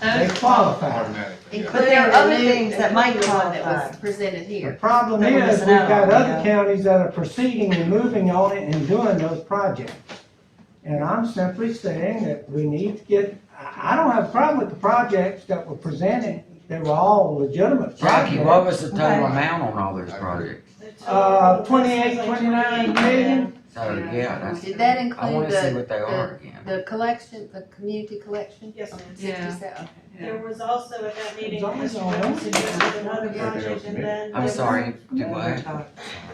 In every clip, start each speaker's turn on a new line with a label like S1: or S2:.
S1: They
S2: those,
S1: qualify.
S3: automatically, yeah.
S4: But
S2: including
S4: there are
S2: the
S4: other
S2: new-
S4: things that might
S2: including the one that was
S4: qualify.
S2: presented
S1: The
S2: here.
S1: problem
S4: They were
S1: is, we've
S4: missing out on
S1: got
S4: it,
S1: other
S4: yeah.
S1: counties that are proceeding and moving on it and doing those projects. And I'm simply saying that we need to get, I, I don't have a problem with the projects that were presented, they were all legitimate
S5: Jackie, what
S1: projects.
S5: was the
S4: Okay.
S5: total amount on all those projects?
S1: Uh, 28, 29 million?
S5: So, yeah, that's,
S2: Did that
S5: I
S2: include
S5: wanna see
S2: the,
S5: what they are again.
S2: the collection, the community collection?
S6: Yes, ma'am.
S2: Sixty seven,
S6: There was also at that meeting,
S1: It's always
S6: Mr.
S1: on
S6: Jones
S1: one.
S6: suggested another
S3: Yeah, they
S6: project
S3: don't
S6: and then.
S5: I'm sorry, do what?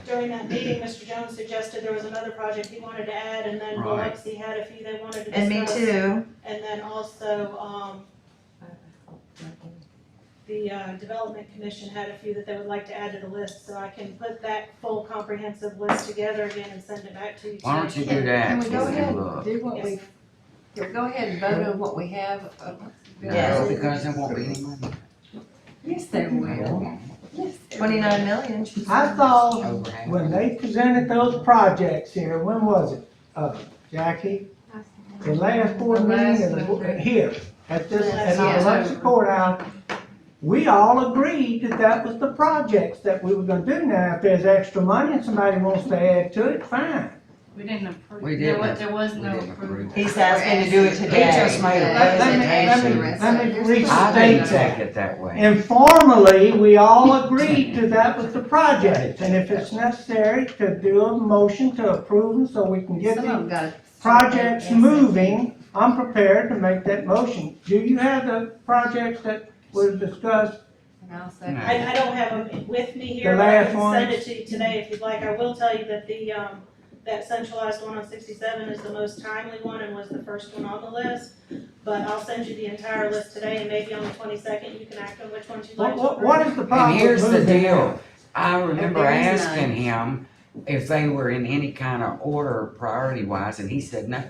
S6: During that meeting, Mr. Jones suggested there was another project he wanted to add and then
S5: Right.
S6: Biloxi had a few they wanted to discuss.
S4: And me too.
S6: And then also, um, the, uh, Development Commission had a few that they would like to add to the list, so I can put that full comprehensive list together again and send it back to you.
S5: Why don't
S6: today.
S5: you do
S2: Can
S5: that?
S2: we go
S5: and
S2: ahead and
S5: look?
S2: do what
S6: Yes.
S2: we, here, go ahead and vote on what we have? uh,
S4: Yes.
S5: No, because there won't be any money.
S2: Yes, there will. Yes. there will.
S4: Twenty-nine million. she said.
S1: I thought
S5: Over half.
S1: when they presented those projects here, when was it, uh, Jackie? The last board meeting, of the bo- here, at this, at the
S2: Yes.
S1: election courthouse, we all agreed that that was the projects that we were gonna do. Now, if there's extra money and somebody wants to add to it, fine.
S7: We didn't approve.
S5: We
S7: There
S5: didn't.
S7: was, there was
S5: We
S7: no
S5: didn't
S7: approval.
S5: approve.
S4: He's asking to do it
S5: He
S4: today.
S5: just made a
S1: Let- let me- let me- let
S5: presentation.
S1: me
S5: I
S1: restate
S5: didn't
S1: that.
S5: take it that way.
S1: Informally, we all agreed to that was the project, and if it's necessary to do a motion to approve them so we can get
S2: Some of
S1: the
S2: them got.
S1: projects
S2: Yes.
S1: moving, I'm prepared to make that motion. Do you have the projects that were discussed?
S2: And I'll say-
S5: No.
S6: I, I don't have them with me
S1: The
S6: here, but I
S1: last
S6: can
S1: one.
S6: send it to you today if you'd like. I will tell you that the, um, that centralized one on sixty-seven is the most timely one and was the first one on the list. But I'll send you the entire list today and maybe on the twenty-second you can act on which ones you'd like
S1: What, what,
S6: to
S1: what
S6: approve.
S1: is the problem?
S5: And here's the
S1: with moving them?
S5: deal, I remember
S2: There is
S5: asking
S2: none.
S5: him if they were in any kind of order priority wise, and he said no.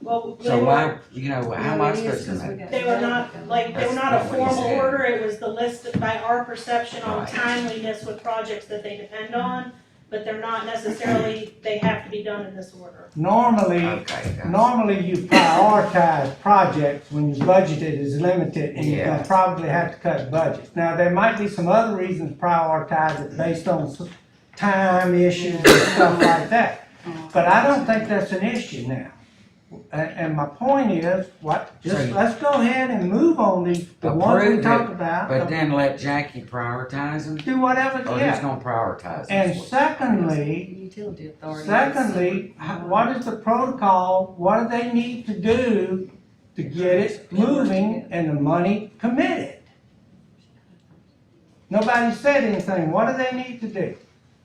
S6: Well, they
S5: So
S6: were,
S5: why, you know,
S2: No,
S5: how am I
S2: it is
S5: supposed to
S2: 'cause we
S5: know?
S2: got-
S6: they were not, like, they were not a
S5: That's not what he
S6: formal
S5: said.
S6: order. It was the list that by our perception on
S5: Right.
S6: timeliness with projects that they depend on. But they're not necessarily, they have to be done in this order.
S1: Normally,
S5: Okay, guys.
S1: Normally, you prioritize projects when your budget is limited and you're gonna probably have to cut budgets. Now, there might be some other reasons to prioritize it based on s- time issues and stuff like that.
S5: Mm-hmm.
S1: But I don't think that's an issue now. A- And, my point is, what,
S5: So
S1: just,
S5: you-
S1: let's go ahead and move on these, the ones
S5: Approve
S1: we
S5: it,
S1: talked about.
S5: but Oh, then let Jackie prioritize them,
S1: Do whatever,
S5: or who's
S1: yeah.
S5: gonna prioritize
S1: And
S5: them?
S1: secondly,
S2: Utility authority.
S1: Secondly, h- what is the protocol, what do they need to do to get it moving and the money committed? Nobody said anything, what do they need to do?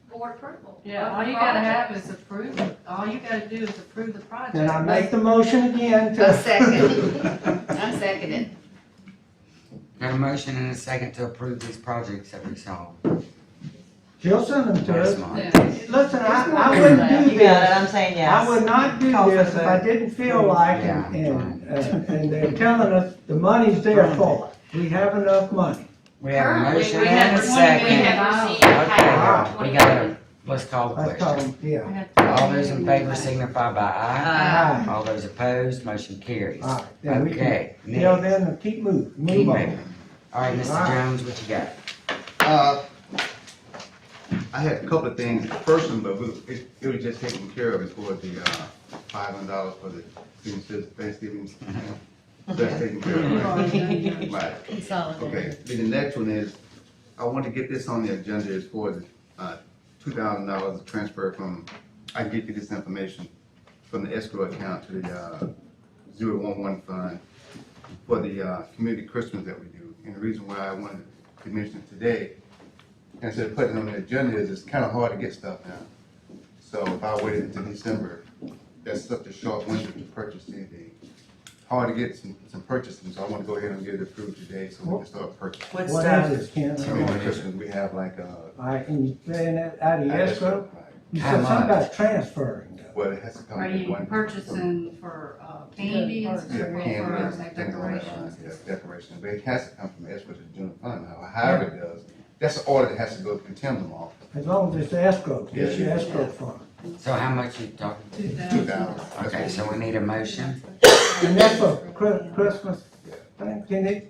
S6: Board approval.
S7: Yeah, all you gotta have is approve, it. all you gotta do is approve the project.
S1: Then I make the motion again to.
S2: A second. I second it.
S5: Got a motion and a second to approve these projects that we saw
S1: She'll send them to
S5: last
S1: us.
S5: month.
S7: Yeah.
S1: Listen, I, I
S7: There's
S1: wouldn't do
S4: You got it,
S1: this,
S4: I'm saying
S1: I
S4: yes.
S1: would not do
S4: Call for
S1: this
S4: the
S1: if
S4: vote.
S1: I didn't feel like, and,
S5: Yeah.
S1: and, uh, and they're telling us the money's there for it. We have enough money.
S5: We have a
S7: Currently,
S5: motion
S7: we
S5: and
S7: have
S5: a
S7: twenty million
S5: second.
S7: dollars.
S5: Okay, y'all, we got a, let's call the
S1: That's all,
S5: question.
S1: yeah.
S5: All those in favor signify by aye.
S1: All right,
S5: All those opposed, motion carries.
S1: all right, then we can
S5: Okay,
S1: You know,
S5: next,
S1: then uh, keep moving,
S5: keep
S1: move on.
S5: moving. All right, Mr. Jones, what you got?
S3: Uh, I had a couple of things, first one, but we, it, it was just taken care of, is for the, uh, five hundred dollars for the student citizen Thanksgiving. That's taken care of, right? Right,
S2: Consolidated.
S3: okay, then the next one is, I want to get this on the agenda, is for the, uh, two thousand dollars transfer from, I can get you this information, from the escrow account to the, uh, zero one one fund for the, uh, community Christmas that we do, and the reason why I wanted to mention it today instead of putting it on the agenda is it's kind of hard to get stuff now. So if I waited until December, that's such a short window to purchase anything. Hard to get some, some purchasing, so I want to go ahead and get it approved today so we can start purchasing.
S4: What
S1: What
S4: stuff?
S1: is it, Ken?
S3: I mean, for Christmas, we have like, uh.
S1: All right, and you paying that out of
S3: I
S1: your
S3: guess,
S1: escrow?
S3: like,
S1: You
S5: How
S1: said
S5: much?
S1: something about transferring though.
S3: Well, it has to come
S7: Are
S3: in one.
S7: you purchasing for uh, candy and
S3: Yeah,
S7: stuff,
S3: candles,
S7: or like
S3: things on that line,
S7: decorations?
S3: yeah, decorations, but it has to come from escrow to the general fund, however it does. That's the order that has to go through Tim's office.
S1: As long as it's escrow,
S3: Yeah.
S1: it's your escrow fund.
S5: So how much you talking?
S7: Two
S3: Two
S7: thousand.
S3: thousand.
S5: Okay, so we need a motion.
S1: And that's for Chri- Christmas, thing. can it,